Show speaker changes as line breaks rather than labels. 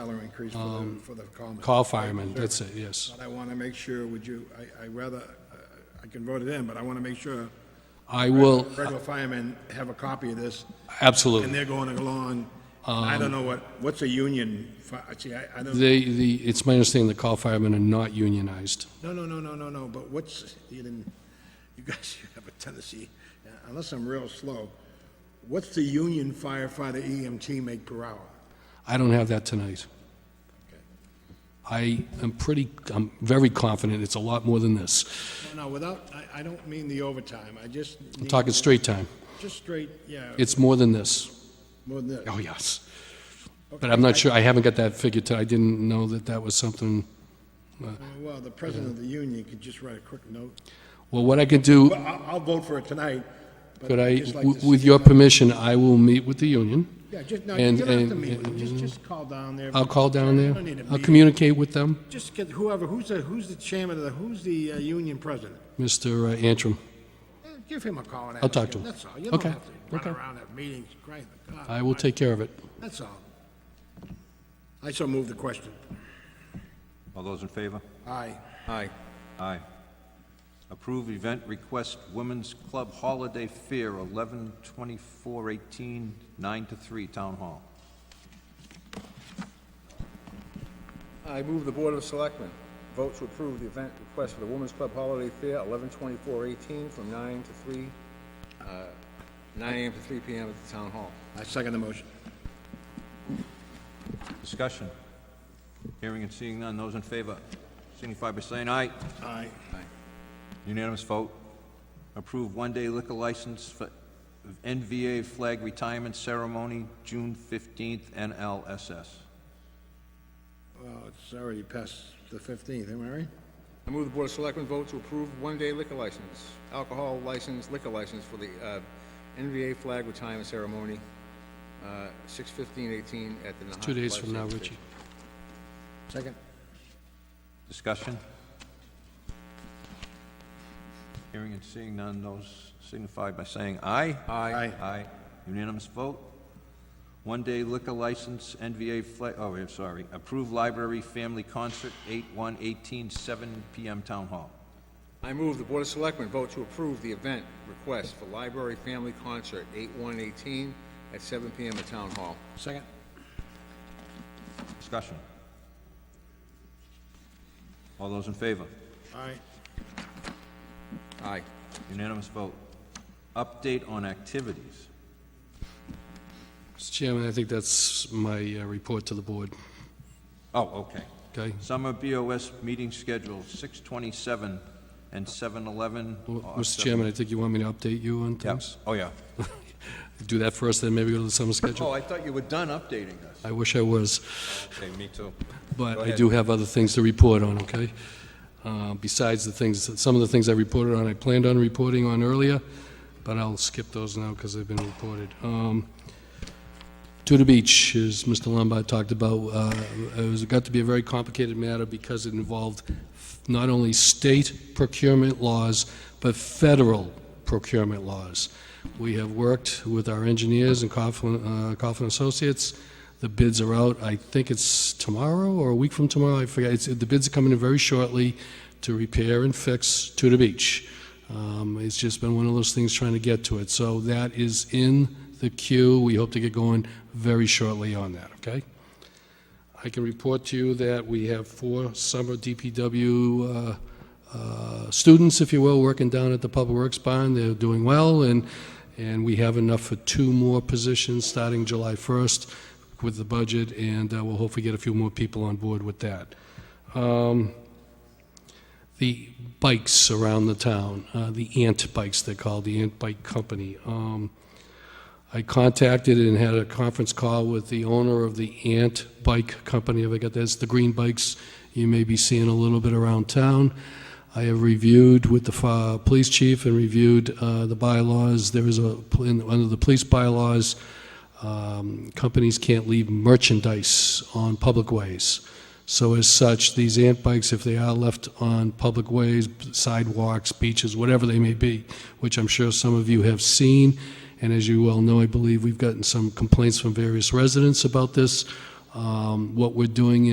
Salary increase for the, for the common.
Call firemen, that's it, yes.
But I want to make sure, would you, I, I rather, uh, I can vote it in, but I want to make sure
I will,
regular firemen have a copy of this, and
absolutely.
they're going along. And I don't know what, what's a union, fi- see, I, I don't, no,
They, Um, the, it's my understanding the call firemen are not unionized.
no, no, no, no, no, but what's, you didn't, you guys, you have a tendency, uh, unless I'm real slow, what's the union firefighter EMT make per hour?
I don't have that tonight. I am pretty, I'm very confident it's a lot more than this.
No, no, without, I, I don't mean the overtime, I just
I'm
need,
talking straight time.
just straight, yeah,
It's more than this.
more than that.
Oh, yes. But I'm not sure, I haven't got that figure to, I didn't know that that was something.
Uh, Well, the president of the union could just write a quick note.
Well, what I could do,
Well, I'll, I'll vote for it tonight. but
could I,
I'd just like to
w- with
see-
your permission, I will meet with the union.
Yeah, just, no, you
and-
don't have to
and-
meet with them, just, just call down there.
I'll call down
You
there.
don't need to
I'll
meet.
communicate with them,
Just get whoever, who's the, who's the chairman of the, who's the uh, union president?
Mr. uh, Antrim.
Eh, Give him a call and ask.
I'll talk to him.
That's all, you don't
Okay,
have to
okay.
run around at meetings, great. God,
I will take care of it.
That's all. I so move the question.
All those in favor?
Aye.
Aye. Aye. Approve event request Women's Club Holiday Fair, 11/24/18, 9 to 3, Town Hall.
I move the Board of Selectmen vote to approve the event request for the Women's Club Holiday Fair, 11/24/18, from 9 to 3, uh, 9 AM to 3 PM at the Town Hall.
I second the motion.
Discussion. Hearing and seeing none, those in favor signify by saying aye.
Aye.
Unanimous vote. Approve one-day liquor license for NVA Flag Retirement Ceremony, June 15th, NLSS.
Well, it's already past the fifteenth, am I right?
I move the Board of Selectmen vote to approve one-day liquor license, alcohol license, liquor license for the uh, NVA flag retirement ceremony, uh, 6/15/18 at the Nahat
Two days
Life
from now,
Saving
Richie.
Station.
Second.
Discussion? Hearing and seeing none, those signify by saying aye. Aye.
Aye.
Aye. Unanimous vote. One-day liquor license, NVA flag, oh, I'm sorry, approved library family concert, 8/1/18, 7 PM Town Hall.
I move the Board of Selectmen vote to approve the event request for Library Family Concert, 8/1/18, at 7 PM at Town Hall.
Second.
Discussion? All those in favor?
Aye.
Aye.
Unanimous vote. Update on activities.
Mr. Chairman, I think that's my uh, report to the board,
Oh, okay.
okay?
Summer BOS meeting schedule, 6:27 and 7:11.
Well,
or
Mr.
7
Chairman, I think you want me to update you on
Yeah.
things?
Oh, yeah.
Do that first, then maybe go to the summer
Oh,
schedule?
I thought you were done updating us.
I wish I was.
Okay, me too.
but
Go
I
ahead.
do have other things to report on, okay? Uh, Besides the things, some of the things I reported on, I planned on reporting on earlier, but I'll skip those now because they've been reported. Um, Tudor Beach, as Mr. Lombard talked about, uh, it was, got to be a very complicated matter because it involved not only state procurement laws, but federal procurement laws. We have worked with our engineers and Coughlin, uh, Coughlin Associates. The bids are out, I think it's tomorrow or a week from tomorrow, I forget. It's, the bids are coming in very shortly to repair and fix Tudor Beach. Um, It's just been one of those things trying to get to it. So that is in the queue. We hope to get going very shortly on that, okay? I can report to you that we have four summer DPW uh, uh, students, if you will, working down at the Public Works Barn. They're doing well, and, and we have enough for two more positions starting July 1st with the budget, and uh, we'll hopefully get a few more people on board with that Um, the bikes around the town, uh, the Ant Bikes, they're called, the Ant Bike Company. Um, I contacted and had a conference call with the owner of the Ant Bike Company, if I got that's the green bikes you may be seeing a little bit around town. I have reviewed with the fi- police chief and reviewed uh, the bylaws. There is a, in- under the police bylaws, um, companies can't leave merchandise on public ways. So as such, these ant bikes, if they are left on public ways, sidewalks, beaches, whatever they may be, which I'm sure some of you have seen, and as you well know, I believe we've gotten some complaints from various residents about this. Um, What we're doing